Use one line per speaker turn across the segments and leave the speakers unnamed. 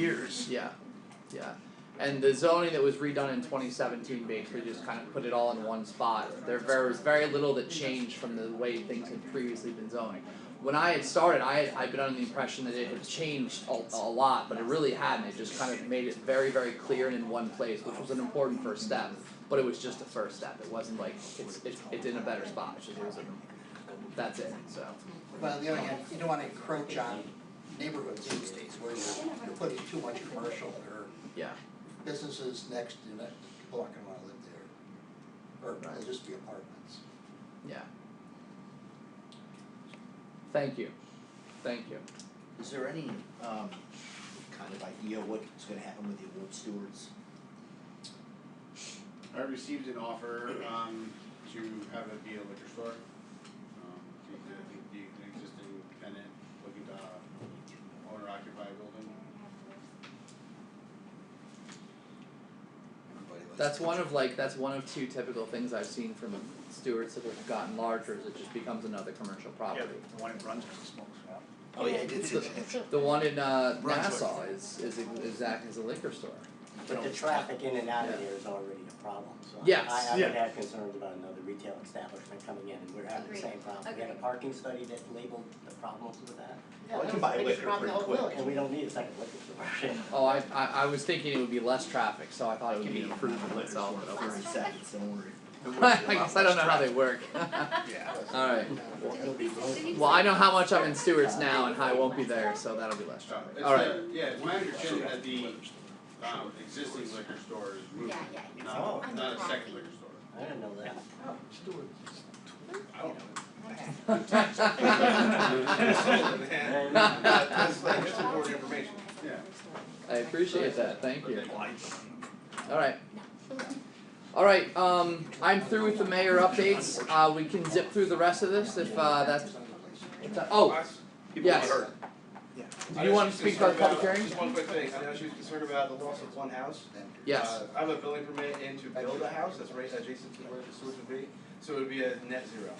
years.
Yeah, yeah. And the zoning that was redone in twenty seventeen basically just kind of put it all in one spot. There ver- was very little that changed from the way things had previously been zoning. When I had started, I had, I'd been under the impression that it had changed a, a lot, but it really hadn't. It just kind of made it very, very clear and in one place, which was an important first step. But it was just a first step. It wasn't like it's it's it's in a better spot. It's just it was a, that's it. So
But on the other hand, you don't wanna encroach on neighborhoods these days where you're, you're putting too much commercial or
yeah,
businesses next to that, people aren't gonna wanna live there. Or it'll just be apartments.
yeah. Thank you, thank you.
Is there any um kind of idea what's gonna happen with the award stewards?
I received an offer um to have it be a liquor store. Um the the the the existing tenant looking to uh, owner occupy a building.
Everybody likes
That's
to-
one of like that's one of two typical things I've seen from stewards that have gotten larger is it just becomes another commercial property.
The one in Brunswick smokes, yeah.
Oh, yeah, I did see that.
The one in uh
Brunswick.
Nassau is is exact as a liquor store.
But the traffic in and out of there is already a problem, so I-
Yes.
I I would
Yeah.
have concerns about another retail establishment coming in and we're having the
Agreed.
same problem. We had a
Agreed.
parking study that labeled the problems with that,
Well, I can buy liquor pretty quick.
and we don't need a second liquor store.
Oh, I I I was thinking it would be less traffic, so I thought it would be an improvement
Liquor
itself,
store,
but okay.
Thirty seconds, don't worry.
I guess I don't know how they work.
Yeah.
Alright,
It'll be roll-
well, I know how much I'm in stewards now and how I won't be there, so that'll be less
Uh,
traffic.
it's
Alright,
the- yeah, it's my understanding that the um existing liquor store is moving,
Yeah, yeah, yeah.
not
Oh.
not a second liquor store.
I didn't know that.
I don't know.
That's
like, that's important information. Yeah.
I appreciate that, thank you. Alright.
No.
Alright, um, I'm through with the mayor updates, uh, we can zip through the rest of this if, uh, that's, if that- oh, Yes. do you wanna speak about public hearing?
Just one quick thing, I know she was concerned about the loss of one house.
Yes,
Uh, I have a building permit in to build a house that's right adjacent to where the sewers would be, so it would be a net zero.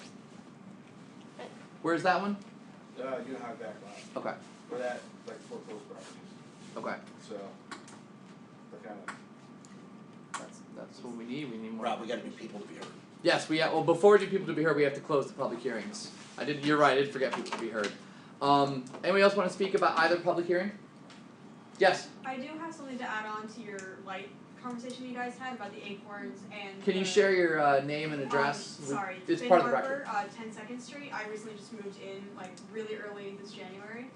where's that one?
Uh, you know how back lot,
Okay,
or that, like foreclosed properties,
okay,
so. That kind of,
that's, that's what we need, we need more.
Rob, we gotta be people to be heard.
Yes, we, well, before we do people to be heard, we have to close the public hearings. I did, you're right, I did forget people to be heard. Um, anybody else wanna speak about either public hearing? Yes,
I do have something to add on to your light conversation you guys had about the acorns and.
can you
the-
share your, uh, name and
Um,
address? with-
sorry,
It's
Finn
part of the
Harbor,
record.
uh, ten Second Street, I recently just moved in like really early this January.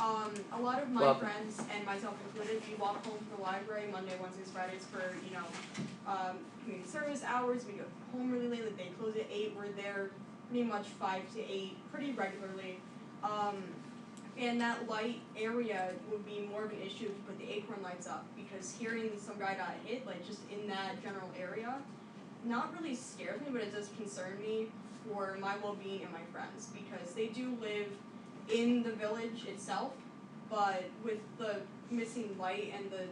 Um, a lot of my
Welcome.
friends and myself included, we walk home from the library Monday, Wednesdays, Fridays for, you know, um, community service hours, we go home really late, like, they close at eight, we're there pretty much five to eight, pretty regularly. Um, and that light area would be more of an issue if you put the acorn lights up, because hearing some guy got hit, like just in that general area, not really scares me, but it does concern me for my well-being and my friends, because they do live in the village itself, but with the missing light and the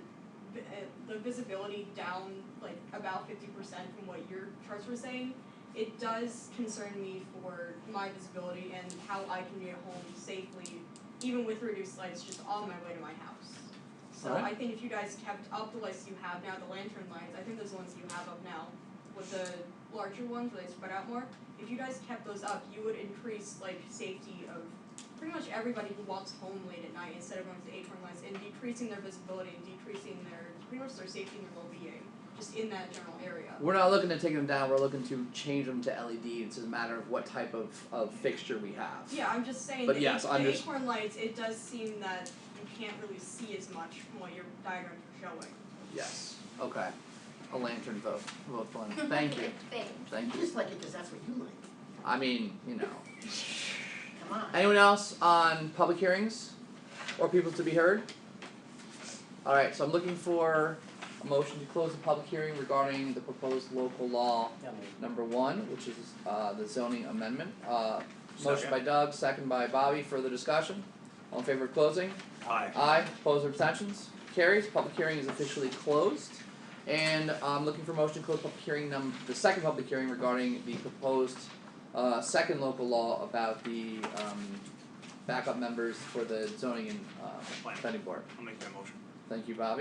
vi- uh, the visibility down like about fifty percent from what your charts were saying, it does concern me for my visibility and how I can get home safely, even with reduced lights, just on my way to my house. So
Alright.
I think if you guys kept up the lights you have now, the lantern lights, I think those ones you have up now, with the larger ones where they spread out more, if you guys kept those up, you would increase like safety of pretty much everybody who walks home late at night instead of going to the acorn lights and decreasing their visibility and decreasing their pretty much their safety and their well being just in that general area.
We're not looking to take them down, we're looking to change them to LED, it's just a matter of what type of, of fixture we have.
Yeah, I'm just saying
But
the,
yes,
ac-
I'm
the
just-
acorn lights, it does seem that you can't really see as much from what your diagrams are showing.
Yes, okay, a lantern vote, vote for him, thank you,
Thanks.
thank
You
you,
just like it because that's what you like,
I mean, you know.
come on.
Anyone else on public hearings or people to be heard? Alright, so I'm looking for a motion to close the public hearing regarding the proposed local law
Yeah, I mean,
number one, which is uh the zoning amendment. Uh motion by Doug, second by Bobby, further discussion? All in favor of closing?
Aye.
Aye, opposed or abstentions? Carries, public hearing is officially closed. And I'm looking for motion to close public hearing num- the second public hearing regarding the proposed uh second local law about the um backup members for the zoning and uh planning board.
I'll make that motion.
Thank you, Bobby.